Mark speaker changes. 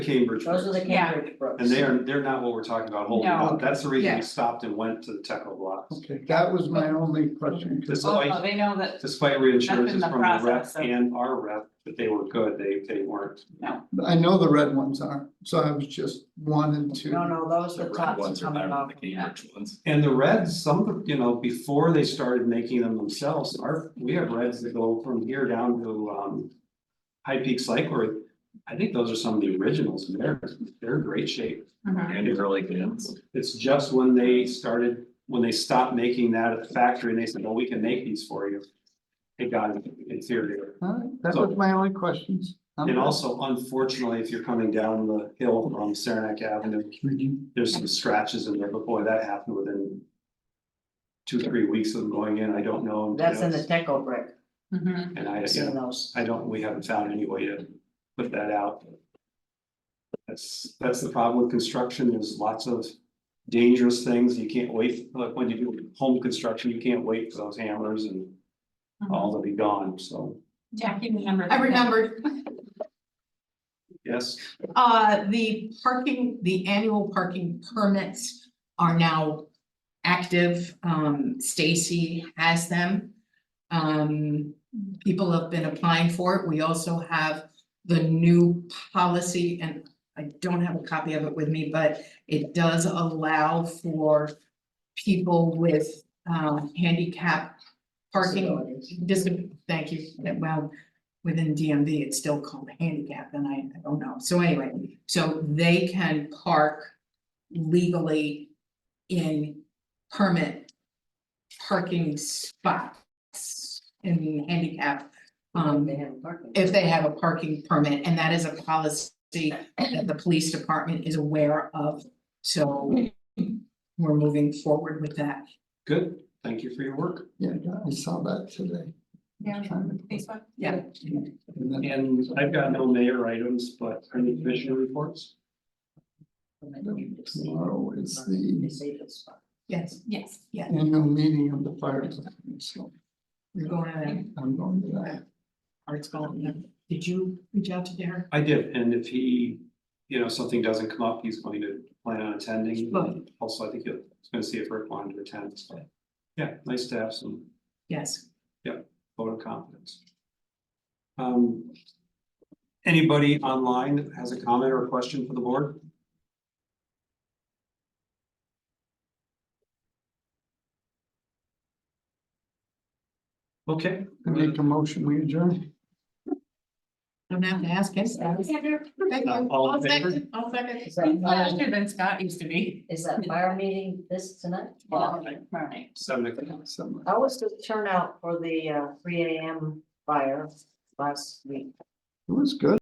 Speaker 1: Cambridge
Speaker 2: Those are the
Speaker 1: Brooks,
Speaker 3: Yeah.
Speaker 2: Cambridge Brooks.
Speaker 1: and they are, they're not what we're talking about holding
Speaker 3: No.
Speaker 1: up, that's the reason
Speaker 3: Yeah.
Speaker 1: we stopped and went to the Teco blocks.
Speaker 4: Okay, that was my only question, cause
Speaker 3: Although
Speaker 1: Despite,
Speaker 3: Oh, they know that,
Speaker 1: despite reinsurances
Speaker 3: the
Speaker 1: from the rep
Speaker 3: process of-
Speaker 1: and our rep, that they were good, they, they weren't.
Speaker 4: I know the red ones are, so I was just wanting
Speaker 2: No,
Speaker 4: to.
Speaker 2: no, those
Speaker 5: The
Speaker 2: are
Speaker 5: red
Speaker 2: tops
Speaker 5: ones are
Speaker 2: coming
Speaker 5: better than
Speaker 2: off.
Speaker 5: the Cambridge ones.
Speaker 1: And the reds, some, of the- you know, before they started making them themselves, our, we have reds that go from here down to, um. High Peak Cycler, I think those are some of the originals, and they're, they're in great shape,
Speaker 3: Mhm.
Speaker 5: And early bands.
Speaker 1: it's just when they started, when they stopped making that at the factory, and they said, oh, we can make these for you. It got inferior.
Speaker 4: Alright, that was my only questions. I'm
Speaker 1: And also unfortunately, if you're coming down the hill from Saranac Avenue, there's some scratches in there, but boy, that happened within. Two, three weeks of going in, I don't know.
Speaker 2: That's in the Teco brick,
Speaker 3: Mhm.
Speaker 1: And I,
Speaker 2: I've
Speaker 1: yeah,
Speaker 2: seen those.
Speaker 1: I don't, we haven't found any way to put that out. That's, that's the problem with construction, there's lots of dangerous things, you can't wait, like when you do home construction, you can't wait for those hammers and all to be gone, so,
Speaker 3: Jackie remembers.
Speaker 6: I remembered,
Speaker 1: yes.
Speaker 6: uh, the parking, the annual parking permits are now active. Um, Stacy has them. Um, people have been applying for it. We also have the new policy and I don't have a copy of it with me, but it does allow for people with, uh, handicap parking
Speaker 2: Facilities.
Speaker 6: dis- thank you, that- well, within DMV, it's still called handicap, and I, I don't know, so anyway, so they can park legally in permit parking spots in handicap, um,
Speaker 2: They have parking.
Speaker 6: if they have a parking permit, and that is a policy that the police department is aware of, so we're moving forward with that.
Speaker 1: Good, thank you for your work.
Speaker 4: Yeah, I saw that today.
Speaker 3: Yeah.
Speaker 4: And
Speaker 3: Facebook.
Speaker 6: Yeah.
Speaker 4: then-
Speaker 1: And I've got no mayor items, but any commissioner reports?
Speaker 4: Tomorrow is the
Speaker 6: Yes,
Speaker 3: Yes.
Speaker 4: annual meeting of the fire department, so
Speaker 6: you're going to that,
Speaker 4: I'm going to that.
Speaker 6: Art's going, did you reach out to Derek?
Speaker 1: I did, and if he, you know, something doesn't come up, he's going to plan on attending.
Speaker 6: Right.
Speaker 1: Also, I think he'll, he's gonna see if Rick wanted to attend, so, yeah, nice to have some
Speaker 6: Yes.
Speaker 1: vote of confidence. Um, anybody online that has a comment or a question for the board? Okay,
Speaker 4: I make a motion, we adjourn.
Speaker 6: Don't have to ask us.
Speaker 1: Uh, all in favor?
Speaker 6: I'll second.
Speaker 2: Is that fire,
Speaker 3: Faster than Scott used to be.
Speaker 2: is that fire meeting this tonight?
Speaker 3: Right, right.
Speaker 1: seven o'clock.
Speaker 4: Some-
Speaker 2: How was the turnout for the uh three AM fire last week?
Speaker 4: It was good.